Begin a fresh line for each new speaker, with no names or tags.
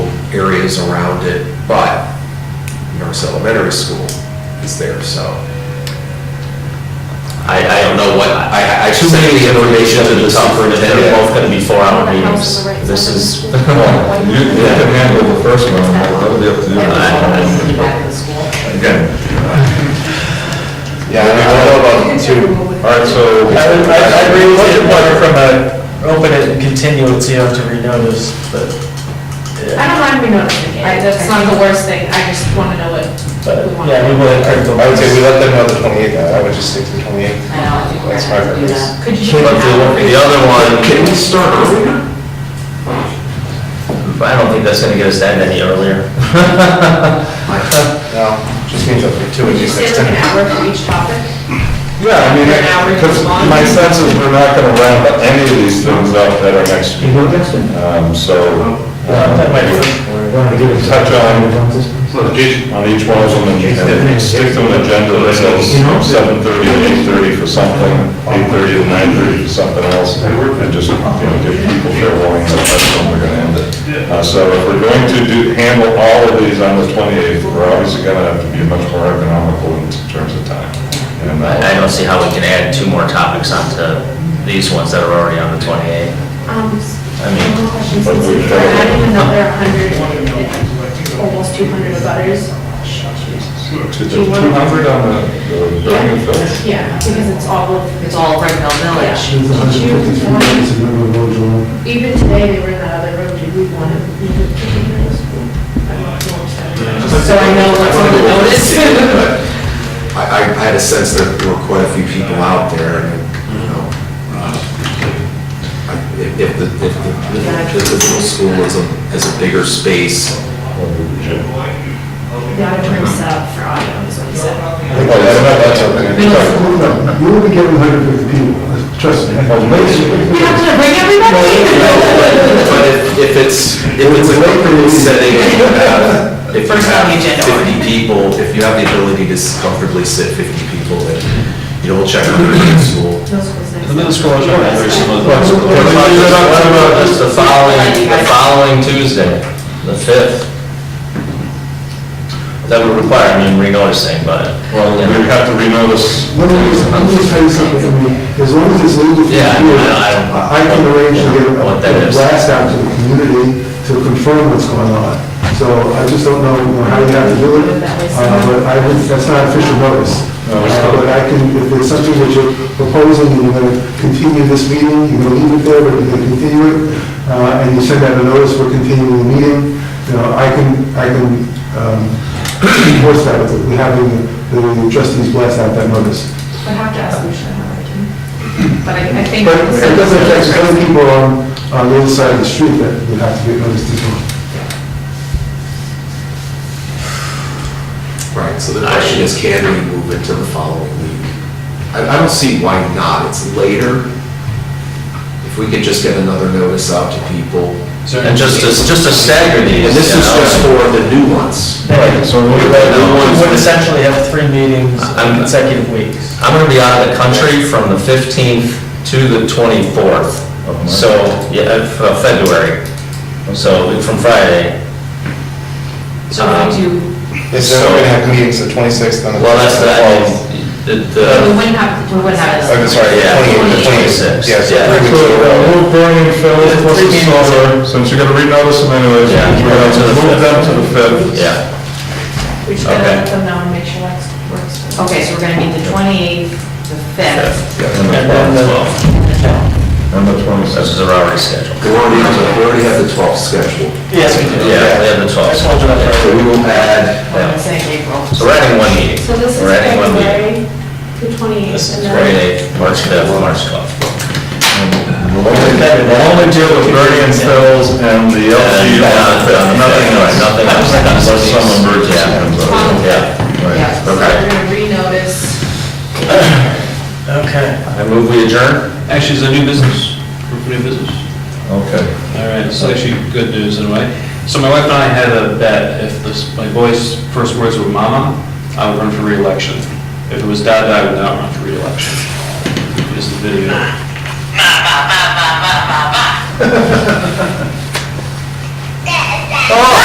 areas around it, but Norris Elementary School is there, so.
I, I don't know what, I, I
Too
sent
many
the information to the superintendent, they're both gonna be four-hour
The
meetings.
house on the right
This
side of the
is,
school.
Well, You you can handle the first one, that'll be up to you.
Everyone's back to school.
Again,
Yeah, I don't know about two.
all right, so.
I would- I I agree with you, but from a,
uh,
open it and continue it, so you have to renotice, but,
I
yeah.
don't mind renoticing it,
I-
that's not the worst thing, I just wanna know what
But,
we want.
yeah, we will encourage them.
I would say we let them know the 28th, I would just stick to the 28th.
I know, I think we're
That's
gonna have to do
perfect.
that.
Could you?
but the, the other one,
Can we start earlier?
I don't think that's gonna get us that any earlier.
No, just means up for two
Would
and
you
just
say
next
like an
time.
hour for each topic?
Yeah, I mean, because my sense is we're not gonna round any of these things up that are next week. Um, so,
That might
um,
be-
touch on, on each one of them and and stick to an agenda that says seven thirty to eight thirty for something, eight thirty to nine thirty for something else, and just, you know, give people fair warning that that's when we're gonna end it. Uh, so if we're going to do, handle all of these on the twenty-eighth, we're obviously gonna have to be much more economical in terms of time. And, uh,
I, I don't see how we can add two more topics onto these ones that are already on the twenty-eight.
Um,
I mean,
questions, since
we-
we're adding another hundred, almost two hundred butters.
Two hundred on the, the building and filth.
Yeah, because it's all of,
It's all Brittenell Village.
There's 153 minutes of number of roads along.
even today, they were in the other room, did we want to?
So I know what's on the notice.
I, I I had a sense that there were quite a few people out there, and, you know, uh, I- if if the, if the, if the middle school is a, is a bigger space,
The auditorium set up for audio, is what he said.
Oh,
Well, no, You will be getting 150 people, trust me.
Oh,
Well, maybe-
We have to bring everybody?
But if, if it's, if it's a comfortable setting, if you have, if you
First on the agenda.
have fifty people, if you have the ability to s- comfortably sit fifty people, then you double check on the middle school.
The
it's the following, the following Tuesday, the fifth. That would require, I mean, renoticing, but.
Well, we have to renotice.
Let me just, let me just tell you something, I mean, as long as it's legal for you,
Yeah, I know, I don't-
I I can arrange to get a-
What that
a
is.
blast out to the community to confirm what's going on. So I just don't know how you have to do it, uh, but I, would- that's not official notice.
No, it's not.
Uh, But I can, if it's something that you're proposing, and you're gonna continue this meeting, you're gonna leave it there, but you're gonna continue it, uh, and you send out a notice for continuing the meeting, you know, I can, I can, um, enforce that, with with having the the trustees blast out that notice.
I have to ask Lucia how I can, but I I think.
But it doesn't affect other people on, on the other side of the street that would have to get noticed as well.
Right, so the question is, can we move it to the following week? I, I don't see why not, it's later. If we could just get another notice out to people.
And just to, just to stagger these,
And this
you
is
know?
just for the new ones.
Right,
So we
We would essentially have three meetings
I'm-
in consecutive weeks.
I'm gonna be out of the country from the 15th to the 24th.
Of March.
So, yeah, of of February. So from Friday.
So we do,
Is
there- we're gonna
have meetings the 26th and
Um, Well, that's the, the,
we
the-
wouldn't have, we wouldn't have.
I'm sorry,
yeah,
the 28th,
26th.
yes,
Yeah.
So, uh, move burning filth, plus the solar, since you're gonna renotice them anyways,
Yeah.
we're gonna move them to the fifth.
Yeah,
We just gotta let
Okay.
them know and make sure that works. for them.
Okay, so we're gonna meet the 28th, the 5th.
and then the 12th.
And the
This
twenty-sixth.
is our already schedule.
We already have, the- we already have the 12th scheduled.
Yes, we do.
Yeah, we have the
That's all July
12th.
So we will add
I'm saying April.
So we're adding one meeting.
So this is
We're adding one meeting.
February, the
This
twenty-eighth,
is
and then
Friday, March 5th, March 12th.
We'll only we'll only deal with burning and fills and the LG
And,
on the
uh,
fifth, nothing else.
Nothing else.
Unless some emergency
Yeah.
comes up.
Yeah.
Right.
Yeah, so
Okay.
we're gonna renotice.
Okay.
I move we adjourn.
Actually, it's a new business, We're for new business.
Okay.
All right, it's actually good news in a way. So my wife and I had a bet, if this, my boy's first words were mama, I would run for reelection. If it was dad, I would not run for reelection. Here's the video.